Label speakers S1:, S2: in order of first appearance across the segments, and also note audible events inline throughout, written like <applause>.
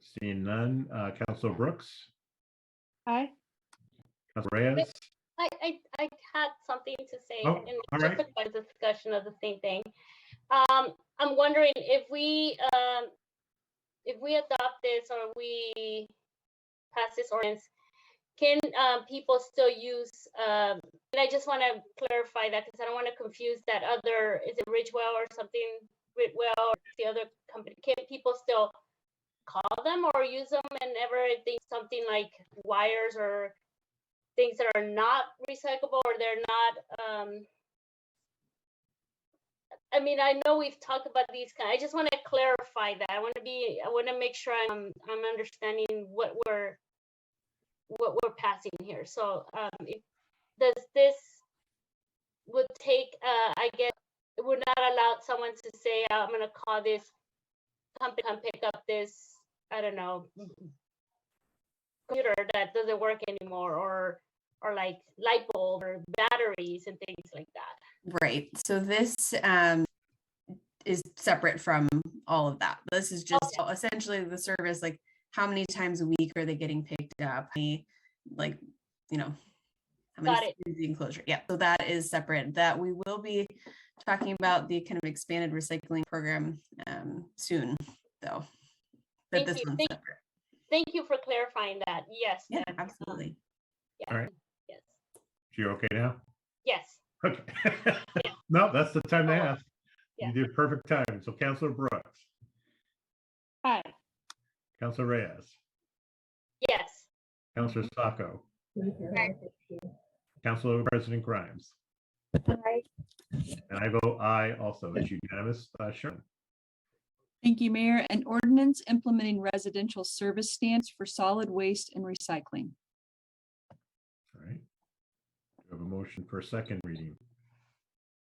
S1: Seeing none, uh, Counselor Brooks,
S2: Aye.
S1: Counselor Reyes,
S3: I, I, I had something to say
S1: Oh,
S3: in
S1: all
S3: just
S1: right.
S3: a quick discussion of the same thing. Um, I'm wondering if we, um, if we adopt this or we pass this ordinance, can, um, people still use, um, and I just want to clarify that because I don't want to confuse that other, is it Ridgewell or something? Ridgewell or the other company, can people still call them or use them and ever think something like wires or things that are not recyclable or they're not um I mean, I know we've talked about these kind. I just want to clarify that. I want to be I want to make sure I'm I'm understanding what we're what we're passing here. So, um if, does this would take uh I guess it would not allow someone to say "Oh, I'm going to call this company come pick up this I don't know computer that doesn't work anymore or or like light bulb or batteries and things like that.
S4: Right. So this um, is separate from all of that. This
S3: Oh,
S4: is just essentially the service. Like, how many times a week are they getting picked up? How many, like, you know, how
S3: Got
S4: many is the enclosure? Yeah. So that is separate. That we will be talking about the kind of expanded recycling program um, soon, though. But
S3: Thank
S4: this
S3: you.
S4: one's
S3: Thank-
S4: separate.
S3: Thank you for clarifying that. Yes.
S4: Yeah,
S3: that, um,
S4: absolutely.
S3: Yeah.
S1: All right.
S3: Yes.
S1: you're okay now?
S3: Yes.
S1: Okay. <laughs> No, that's the time to
S3: Oh,
S1: ask. You
S3: yeah.
S1: did perfect time. So Counselor Brooks,
S2: Aye.
S1: Counselor Reyes,
S3: Yes.
S1: Counselor Sacco, Counselor President Grimes.
S2: Aye.
S1: And I vote aye also. It's unanimous. Uh, Sharon,
S2: Thank you, Mayor. An ordinance implementing residential service standards for solid waste and recycling.
S1: all right. We have a motion for second reading.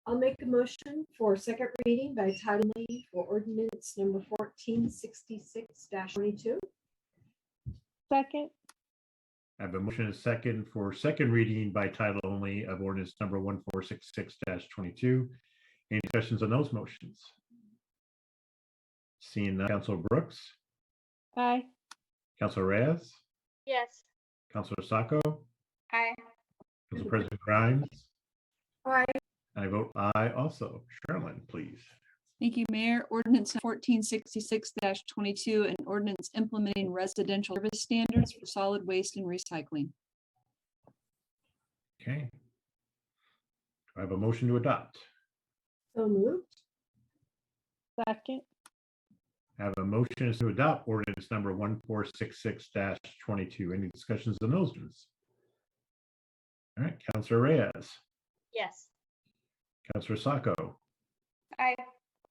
S5: I'll make a motion for second reading by title only for ordinance number fourteen sixty-six twenty-two.
S2: Second.
S1: I have a motion and a second for second reading by title only of ordinance number one four six six twenty-two. Any questions on those motions? Seeing none, Counselor Brooks,
S2: Aye.
S1: Counselor Reyes,
S3: Yes.
S1: Counselor Sacco,
S3: Aye.
S1: Council President Grimes,
S5: Aye.
S1: and I vote aye also. Sherilyn, please.
S2: Thank you, Mayor. Ordinance fourteen sixty-six twenty-two, an ordinance implementing residential service standards for solid waste and recycling.
S1: Okay. Do I have a motion to adopt?
S5: So moved.
S2: Second.
S1: I have a motion to adopt ordinance number one four six six twenty-two. Any discussions on those ones? All right, Counselor Reyes,
S3: Yes.
S1: Counselor Sacco,
S3: Aye.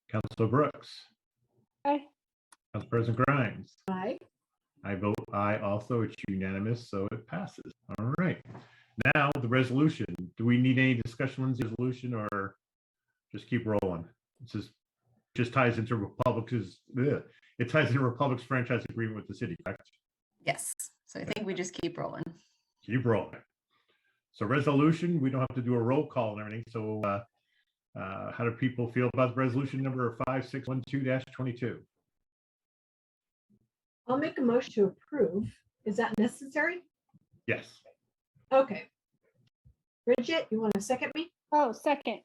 S1: Counselor Brooks,
S2: Aye.
S1: Council President Grimes.
S5: Aye.
S1: I vote aye also. It's unanimous, so it passes. All right. Now, the resolution. Do we need any discussion on the resolution or just keep rolling? This is, just ties into Republic's, ugh, it ties into Republic's franchise agreement with the city, correct?
S4: Yes. So I think we just keep rolling.
S1: Keep rolling. So resolution, we don't have to do a roll call and everything. So uh, uh, how do people feel about resolution number 5612-22?
S5: I'll make a motion to approve. Is that necessary?
S1: Yes.
S5: Okay. Bridget, you want to second me?
S2: Oh, second.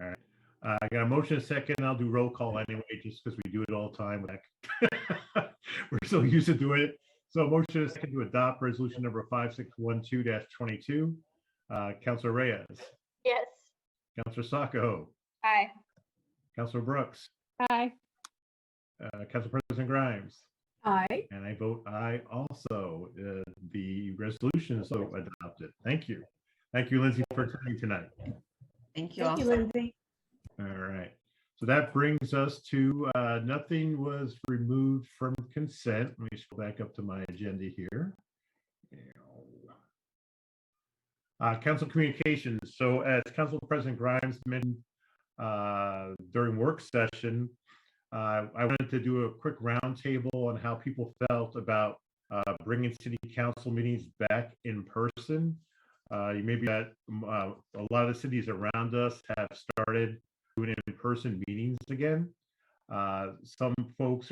S1: Uh, I got a motion and a second. I'll do roll call anyway, just because we do it all the time. Like, <laughs> We're so used to doing it. So motion and a second to adopt resolution number five, six, one, two, dash, twenty-two. Uh, Counselor Reyes,
S3: Yes.
S1: Counselor Sacco,
S3: Aye.
S1: Counselor Brooks,
S2: Aye.
S1: uh, Council President Grimes,
S5: Aye.
S1: and I vote aye also. Uh, the resolution is so adopted. Thank you. Thank you, Lindsay, for coming tonight.
S4: Thank you all.
S5: Thank you, Lindsay.
S1: All right. So that brings us to, uh, nothing was removed from consent. Let me scroll back up to my agenda here. Uh, council communications. So as Council President Grimes mentioned, uh, during work session, uh, I wanted to do a quick roundtable on how people felt about, uh, bringing city council meetings back in person. Uh, you may be that, um, uh, a lot of cities around us have started doing in-person meetings again. Uh, Some folks